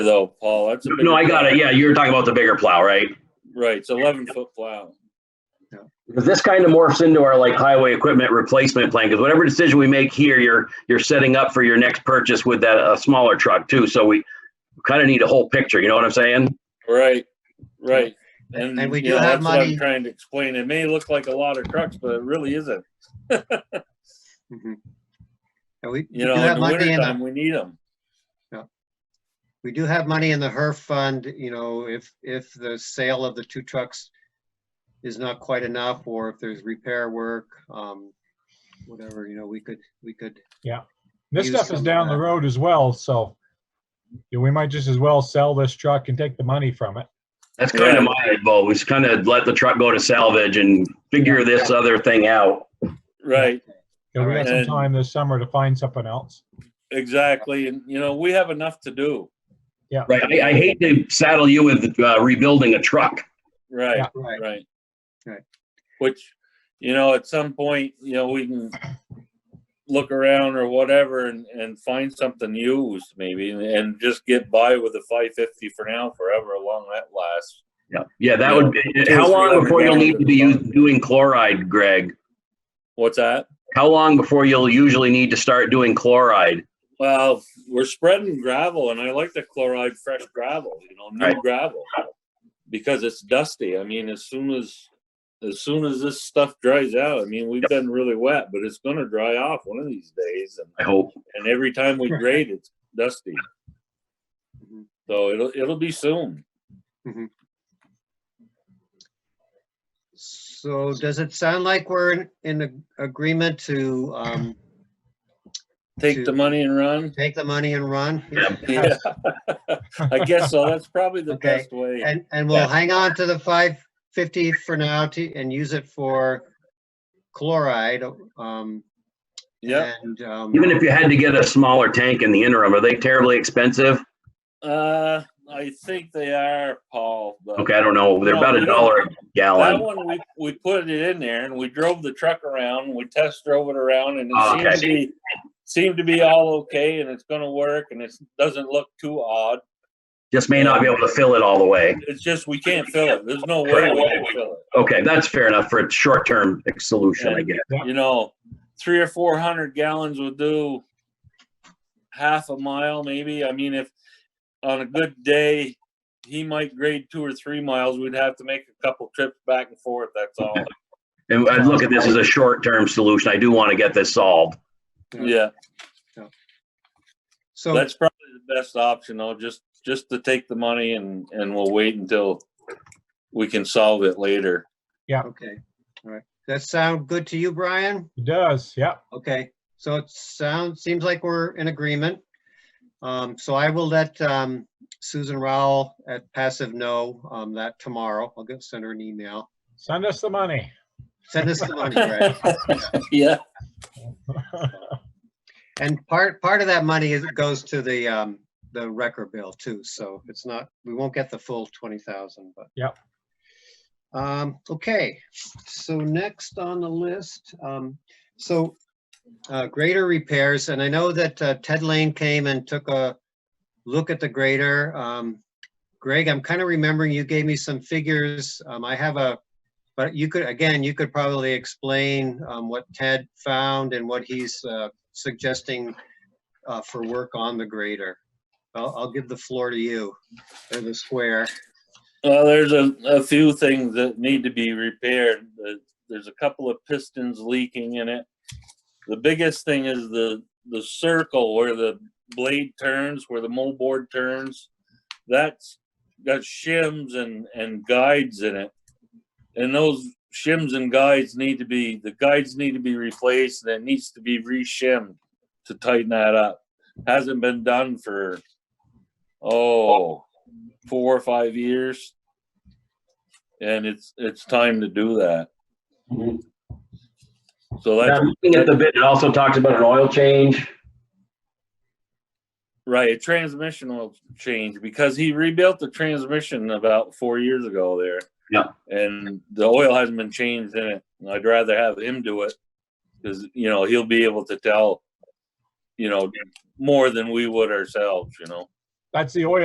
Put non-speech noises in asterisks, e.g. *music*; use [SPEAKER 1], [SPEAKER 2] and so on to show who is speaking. [SPEAKER 1] though, Paul. That's a
[SPEAKER 2] No, I
[SPEAKER 1] bigger
[SPEAKER 2] got it. Yeah, you were talking about the bigger plow, right?
[SPEAKER 1] plow. Right, it's eleven foot plow.
[SPEAKER 2] Because this kind of morphs into our like highway equipment replacement plan, because whatever decision we make here, you're, you're setting up for your next purchase with that, a smaller truck too, so we kind of need a whole picture, you know what I'm saying?
[SPEAKER 1] Right, right. And,
[SPEAKER 3] And we
[SPEAKER 1] you
[SPEAKER 3] do
[SPEAKER 1] know,
[SPEAKER 3] have
[SPEAKER 1] that's what I'm
[SPEAKER 3] money-
[SPEAKER 1] Trying to explain. It may look like a lot of trucks, but it really isn't.
[SPEAKER 3] Mhm. And we, we
[SPEAKER 1] You
[SPEAKER 3] do
[SPEAKER 1] know, in
[SPEAKER 3] have
[SPEAKER 1] the
[SPEAKER 3] money in,
[SPEAKER 1] wintertime,
[SPEAKER 3] the-
[SPEAKER 1] we need them.
[SPEAKER 3] we do have money in the HERF fund, you know, if, if the sale of the two trucks is not quite enough, or if there's repair work, um, whatever, you know, we could, we could,
[SPEAKER 4] This
[SPEAKER 3] use
[SPEAKER 4] stuff
[SPEAKER 3] some
[SPEAKER 4] is
[SPEAKER 3] of
[SPEAKER 4] down the
[SPEAKER 3] that.
[SPEAKER 4] road as well, so yeah, we might just as well sell this truck and take the money from it.
[SPEAKER 2] That's kind
[SPEAKER 1] Yeah.
[SPEAKER 2] of my goal, is kind of let the truck go to salvage and figure this other thing out.
[SPEAKER 1] Right,
[SPEAKER 4] Yeah, we got some
[SPEAKER 1] Alright.
[SPEAKER 4] time this summer to find something else.
[SPEAKER 1] exactly. And, you know, we have enough to do.
[SPEAKER 2] Right, I, I hate to saddle you with uh, rebuilding a truck.
[SPEAKER 1] Right,
[SPEAKER 4] Yeah.
[SPEAKER 3] right,
[SPEAKER 1] right.
[SPEAKER 3] Right.
[SPEAKER 1] Which, you know, at some point, you know, we can look around or whatever and, and find something used maybe and, and just get by with the five fifty for now, forever long that lasts.
[SPEAKER 2] Yeah, yeah, that would be, uh, how long before you'll need to be us- doing chloride, Greg?
[SPEAKER 1] What's that?
[SPEAKER 2] How long before you'll usually need to start doing chloride?
[SPEAKER 1] Well, we're spreading gravel and I like the chloride fresh gravel, you know, new
[SPEAKER 2] Right.
[SPEAKER 1] gravel. Because it's dusty. I mean, as soon as as soon as this stuff dries out, I mean, we've been really wet, but it's gonna dry off one of these days and
[SPEAKER 2] I hope.
[SPEAKER 1] and every time we
[SPEAKER 3] Right.
[SPEAKER 1] grade, it's dusty.
[SPEAKER 3] Mhm.
[SPEAKER 1] So it'll it'll be soon.
[SPEAKER 3] So does it sound like we're in, in a- agreement to, um,
[SPEAKER 1] Take the
[SPEAKER 3] Shoot.
[SPEAKER 1] money and
[SPEAKER 3] *laughs*
[SPEAKER 1] run.
[SPEAKER 3] take the money and run?
[SPEAKER 2] Yeah.
[SPEAKER 1] Yeah, *laughs* I guess so. That's probably the
[SPEAKER 3] Okay.
[SPEAKER 1] best way.
[SPEAKER 3] And, and we'll hang on to the five fifty for now to, and use it for chloride, um,
[SPEAKER 1] Yeah.
[SPEAKER 3] and, um,
[SPEAKER 2] Even if you had to get a smaller tank in the interim, are they terribly expensive?
[SPEAKER 1] Uh, I think they are, Paul. but
[SPEAKER 2] Okay, I don't know. They're about a dollar a
[SPEAKER 1] That
[SPEAKER 2] gallon.
[SPEAKER 1] one, we, we put it in there and we drove the truck around, and we test drove it around and
[SPEAKER 2] Oh,
[SPEAKER 1] it seemed to
[SPEAKER 2] okay.
[SPEAKER 1] be, seemed to be all okay and it's gonna work and it doesn't look too odd.
[SPEAKER 2] Just may not be able to fill it all the way.
[SPEAKER 1] It's just, we can't fill it. There's no way we can fill it.
[SPEAKER 2] Okay, that's fair enough for a short-term solution, I guess.
[SPEAKER 1] you know, three or four hundred gallons would do half a mile, maybe. I mean, if on a good day, he might grade two or three miles, we'd have to make a couple trips back and forth. That's all.
[SPEAKER 2] And I look at this as a short-term solution. I do want to get this solved.
[SPEAKER 1] Yeah,
[SPEAKER 3] so,
[SPEAKER 1] that's probably the best option though, just, just to take the money and, and we'll wait until we can solve it later.
[SPEAKER 3] okay, all right. That sound good to you, Brian?
[SPEAKER 4] It does, yep.
[SPEAKER 3] Okay, so it sounds, seems like we're in agreement. Um, so I will let, um, Susan Rowell at Passive know, um, that tomorrow. I'll go send her an email.
[SPEAKER 4] Send us the money.
[SPEAKER 3] Send us the money, Brad.
[SPEAKER 1] *laughs* Yeah,
[SPEAKER 3] And part, part of that money is, goes to the, um, the wrecker bill too, so it's not, we won't get the full twenty thousand, but.
[SPEAKER 4] Yep.
[SPEAKER 3] Um, okay, so next on the list, um, so, uh, grader repairs, and I know that uh, Ted Lane came and took a look at the grader. Um, Greg, I'm kind of remembering you gave me some figures, um, I have a, but you could, again, you could probably explain, um, what Ted found and what he's, uh, suggesting uh, for work on the grader. I'll, I'll give the floor to you, or the square.
[SPEAKER 1] well, there's a, a few things that need to be repaired. The- There's a couple of pistons leaking in it. The biggest thing is the, the circle where the blade turns, where the moldboard turns. That's got shims and, and guides in it. And those shims and guides need to be, the guides need to be replaced and it needs to be reshimmed to tighten that up. Hasn't been done for, oh, four or five years. And it's, it's time to do that. So that's
[SPEAKER 2] Now, Looking at the bid, it also talks about an oil change.
[SPEAKER 1] Right, a transmission will change because he rebuilt the transmission about four years ago there.
[SPEAKER 2] Yeah.
[SPEAKER 1] And the oil hasn't been changed in it. and I'd rather have him do it because, you know, he'll be able to tell, you know, more than we would ourselves, you know.
[SPEAKER 4] That's the oil